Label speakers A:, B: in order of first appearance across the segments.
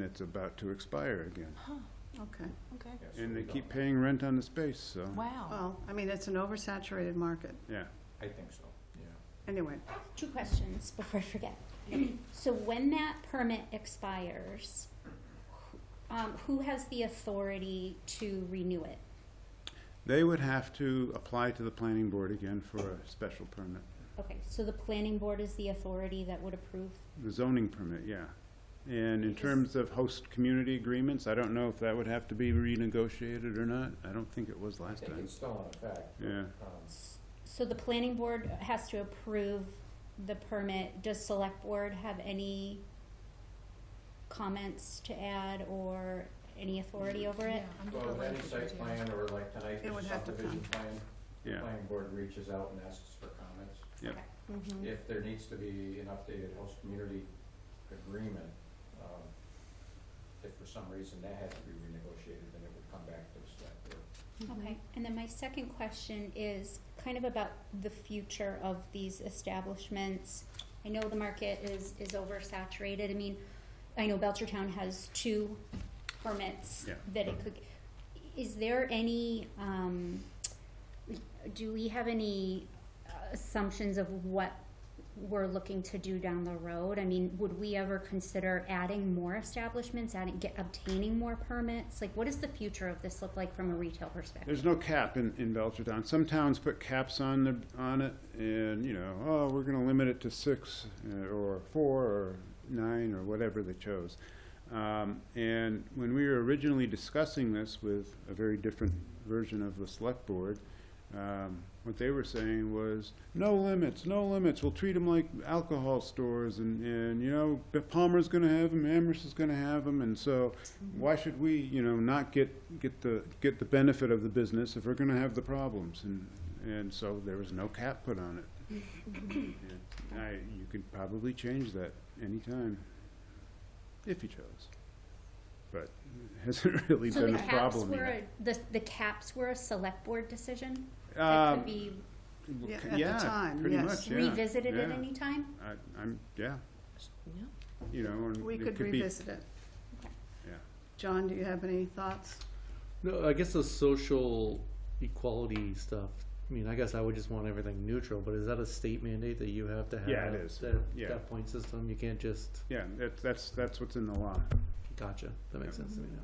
A: and it's about to expire again.
B: Okay.
C: Okay.
A: And they keep paying rent on the space, so,
C: Wow.
B: Well, I mean, it's an oversaturated market.
A: yeah.
D: I think so, yeah.
B: Anyway,
E: Two questions before I forget. So when that permit expires, wh- um, who has the authority to renew it?
A: They would have to apply to the planning board again for a special permit,
E: Okay, so the planning board is the authority that would approve?
A: the zoning permit, yeah. And in terms of host community agreements, I don't know if that would have to be renegotiated or not. I don't think it was
D: I
A: last
D: think
A: time.
D: it's still in effect.
A: Yeah.
D: Um,
E: S- So the planning board has to approve the permit. Does select board have any comments to add or any authority over it?
D: Well, with any site plan or like tonight's
B: It would have to
D: subdivision plan, the
A: Yeah,
D: planning board reaches out and asks for comments.
A: Yep.
E: Okay. Mhm.
B: Mm-hmm.
D: If there needs to be an updated host community agreement, um, if for some reason that had to be renegotiated, then it would come back to the select board.
E: Okay, and then my second question is kind of about the future of these establishments. I know the market is, is oversaturated, I mean, I know Belchertown has two permits
A: Yeah.
E: that it could, is there any, um, do we have any uh, assumptions of what we're looking to do down the road? I mean, would we ever consider adding more establishments, adding, get, obtaining more permits? Like, what does the future of this look like from a retail perspective?
A: There's no cap in, in Belchertown. Some towns put caps on the, on it and, you know, oh, we're gonna limit it to six uh, or four or nine or whatever they chose. Um, and when we were originally discussing this with a very different version of the select board, um, what they were saying was, no limits, no limits, we'll treat them like alcohol stores and, and, you know, Palmer's gonna have them, Amherst is gonna have them, and so why should we, you know, not get, get the, get the benefit of the business if we're gonna have the problems? And, and so there was no cap put on it. And I, you could probably change that anytime, if you chose. But it hasn't really
E: So
A: been
E: the
A: a
E: caps
A: problem
E: were,
A: yet.
E: a- the, the caps were a select board decision? That
A: Um,
E: could be
A: w-
B: Yeah,
A: c-
B: at the time,
A: pretty
B: yes.
A: much, yeah,
E: revisited at
A: yeah.
E: any time?
A: I, I'm, yeah, you know, and
B: we
A: it
B: could
A: be-
B: revisit it.
E: Okay.
A: Yeah.
B: John, do you have any thoughts?
F: No, I guess the social equality stuff. I mean, I guess I would just want everything neutral, but is that a state mandate that you have to have?
A: Yeah, it is.
F: That,
A: Yeah.
F: that point system, you can't just,
A: Yeah, that's, that's, that's what's in the law.
F: gotcha, that makes sense to me now.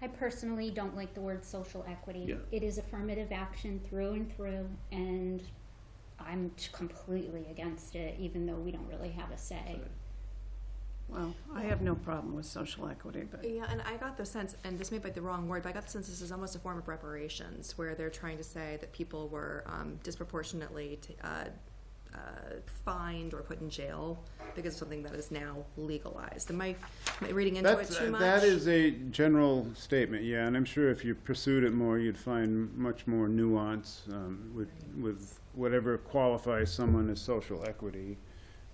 E: I personally don't like the word social equity.
F: Yeah.
E: It is affirmative action through and through, and I'm t- completely against it, even though we don't really have a say.
F: Sorry.
B: Well, I have no problem with social equity, but
C: Yeah, and I got the sense, and this may be the wrong word, but I got the sense this is almost a form of reparations, where they're trying to say that people were um, disproportionately t- uh, uh, fined or put in jail because of something that is now legalized. Am I, am I reading into it
A: That's, uh,
C: too much?
A: that is a general statement, yeah, and I'm sure if you pursued it more, you'd find much more nuance, um, with, with whatever qualifies someone as social equity.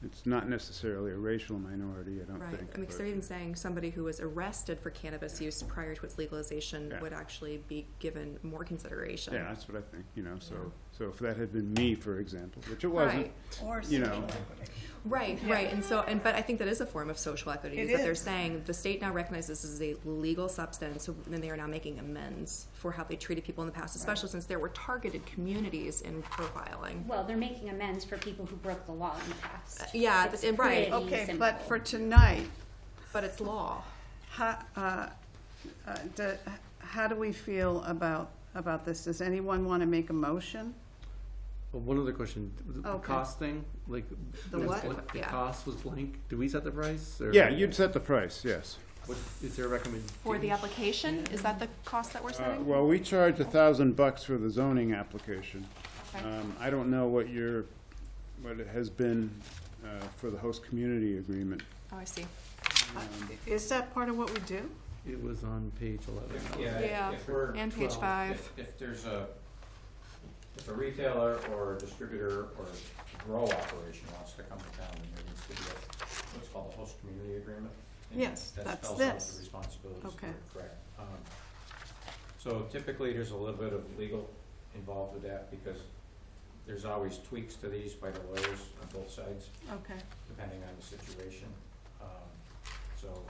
A: It's not necessarily a racial minority, I don't
C: Right.
A: think.
C: I mean, 'cause
A: but-
C: they're even saying somebody who was arrested for cannabis use prior to its legalization
A: Yeah.
C: would actually be given more consideration.
A: Yeah, that's what I think, you know, so, so if that had been me, for example, which it wasn't,
C: Right.
B: or
A: You
B: social
A: know.
B: equity.
C: Right, right, and so, and but I think that is a form of social equity.
B: It
C: is that they're
B: is.
C: saying the state now recognizes this as a legal substance, so then they are now making amends for how they treated people in the past, especially since there were targeted communities in profiling.
E: Well, they're making amends for people who broke the law in the past.
C: Uh, yeah,
E: It's
C: th- right.
E: pretty
B: Okay, but
E: simple.
B: for tonight,
C: But it's law.
B: how, uh, uh, do- how do we feel about, about this? Does anyone want to make a motion?
F: Well, one other question, the the
B: Okay.
F: cost thing, like.
B: The
F: was
B: what?
F: blank- The
C: Yeah.
F: cost was blank, do we set the price? or-
A: yeah, you'd set the price, yes.
F: What, is there a recommendation?
C: For the application, is that the cost that we're
A: Uh,
C: setting?
A: well, we charge a thousand bucks for the zoning application.
C: Okay.
A: Um, I don't know what your, what it has been, uh, for the host community agreement.
C: Oh, I see.
B: Is that part of what we do?
F: It was on page eleven.
D: If-
C: Yeah,
D: Yeah, if we're.
C: And page
F: Well,
C: five.
D: If, if there's a, if a retailer or a distributor or grow operation wants to come to town, then there needs to be a, what's called a host community agreement. and
B: Yes,
D: that
B: that's
D: spells out
B: this.
D: The responsibilities,
B: Okay.
D: you're correct. Um, So typically, there's a little bit of legal involved with that because there's always tweaks to these by the lawyers on both sides
B: Okay.
D: depending on the situation. Um, So